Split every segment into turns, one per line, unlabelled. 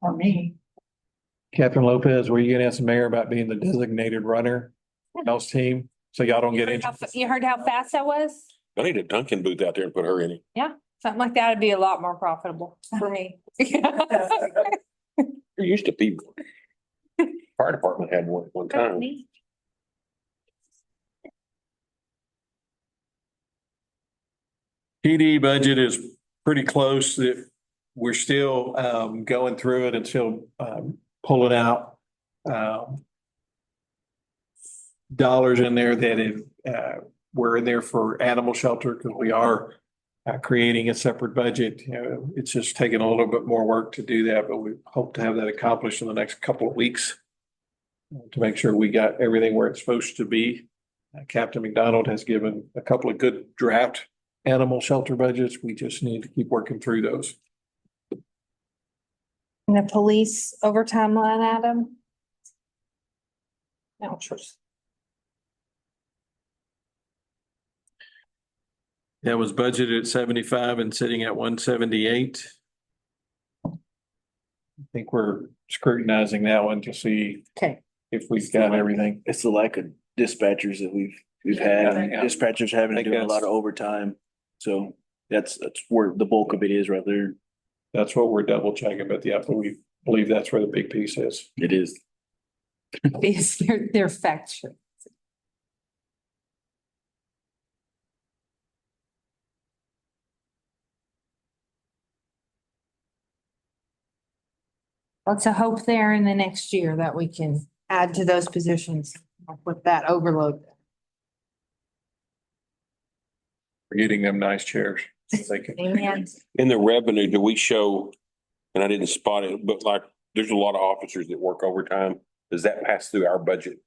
for me.
Captain Lopez, were you gonna ask the mayor about being the designated runner? Else team, so y'all don't get injured.
How fa- You heard how fast that was?
I need a Dunkin' booth out there and put her in it.
Something like that would be a lot more profitable for me.
There used to be one. Fire department had one at one time.
PD budget is pretty close that we're still um going through it and still um pulling out um dollars in there that if uh were in there for animal shelter because we are uh creating a separate budget. You know, it's just taking a little bit more work to do that, but we hope to have that accomplished in the next couple of weeks uh, to make sure we got everything where it's supposed to be. Uh, Captain McDonald has given a couple of good draft animal shelter budgets. We just need to keep working through those.
And the police overtime line item? Vouchers.
That was budgeted at seventy-five and sitting at one seventy-eight. I think we're scrutinizing that one to see
Okay.
if we've got everything.
It's the lack of dispatchers that we've, we've
Yeah,
had,
yeah.
dispatchers having
I
to do a
guess.
lot of overtime. So that's, that's where the bulk of it is right there.
That's what we're double checking, but yeah, we believe that's where the big piece is.
It is.
These, they're, they're factual. Lots of hope there in the next year that we can add to those positions with that overload.
We're getting them nice chairs. They can-
Amen.
In the revenue, do we show, and I didn't spot it, but like, there's a lot of officers that work overtime. Does that pass through our budget?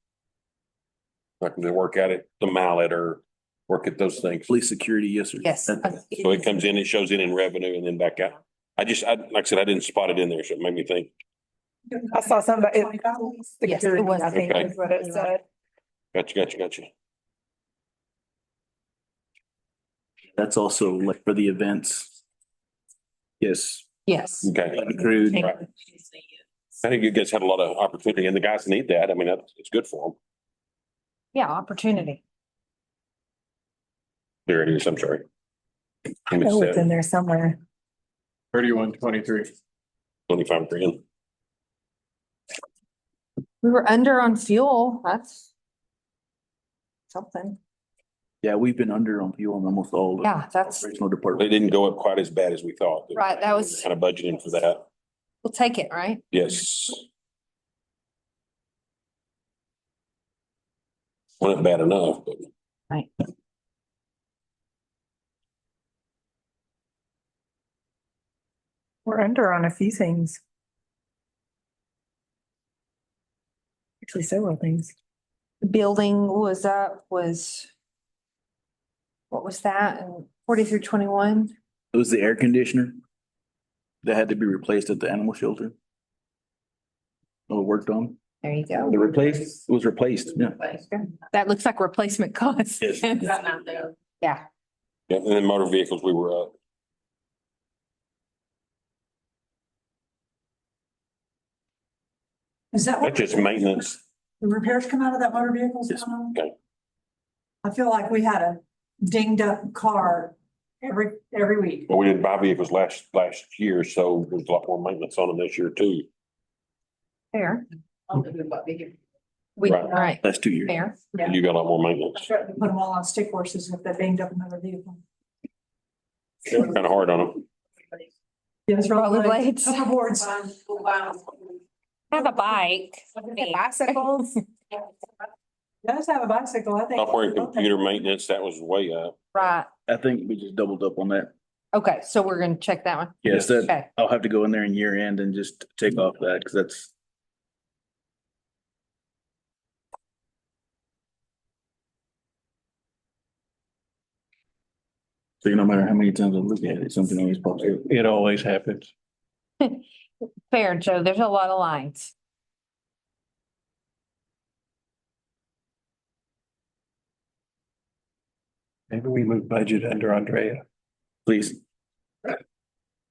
Like, do they work at it, the mallet or work at those things? So
Police security, yes, sir.
Yes.
That-
it comes in, it shows in in revenue and then back out. I just, I, like I said, I didn't spot it in there, so it made me think.
I saw somebody.
Yes, it was.
I think
Okay.
is what it said.
Gotcha, gotcha, gotcha.
That's also like for the events. Yes.
Yes.
Okay.
Accrued.
I think you guys had a lot of opportunity and the guys need that. I mean, that's, it's good for them.
Yeah, opportunity.
There it is, I'm sorry.
I know it's in there somewhere.
Thirty-one, twenty-three.
uh, Twenty-five grand.
We were under on fuel. That's something.
Yeah, we've been under on fuel on almost all. of the
Yeah, that's,
Operational
They
department.
didn't go up quite as bad as we thought.
Right, that was-
Kind of budgeting for that.
we'll take it, right?
Yes. Wasn't bad enough, but.
Right.
We're under on a few things. Actually, several things.
The Building was up, was what was that? And forty through twenty-one?
It was the air conditioner that had to be replaced at the animal shelter. Or worked on.
There you
The
go.
replaced, it was replaced, yeah.
That looks like replacement cost.
Yes.
Yeah,
Yeah, and then motor vehicles, we were up.
Is that what
That's just maintenance.
the repairs come out of that motor vehicles?
Yes,
um,
okay.
I feel like we had a dinged up car every, every week.
But we didn't buy vehicles last, last year, so there's a lot more maintenance on them this year too.
fair. We,
Right.
right,
Last two years.
fair.
Yeah.
You got a lot more maintenance.
I threatened to put them all on stick horses if they dinged up another vehicle.
Kind of hard on them.
Yes,
Roller blades.
Hoverboards.
Have a bike.
Bicycles.
Does have a bicycle, I think.
Software and computer maintenance, that was way up.
Right.
I think we just doubled up on that.
Okay, so we're gonna check that one.
Yes, that,
Okay.
I'll have to go in there in year end and just take off that, because that's. So you no matter how many times I look at it, something always pops up.
It always happens.
Fair, Joe. There's a lot of lines.
Maybe we move budget under Andrea.
Please,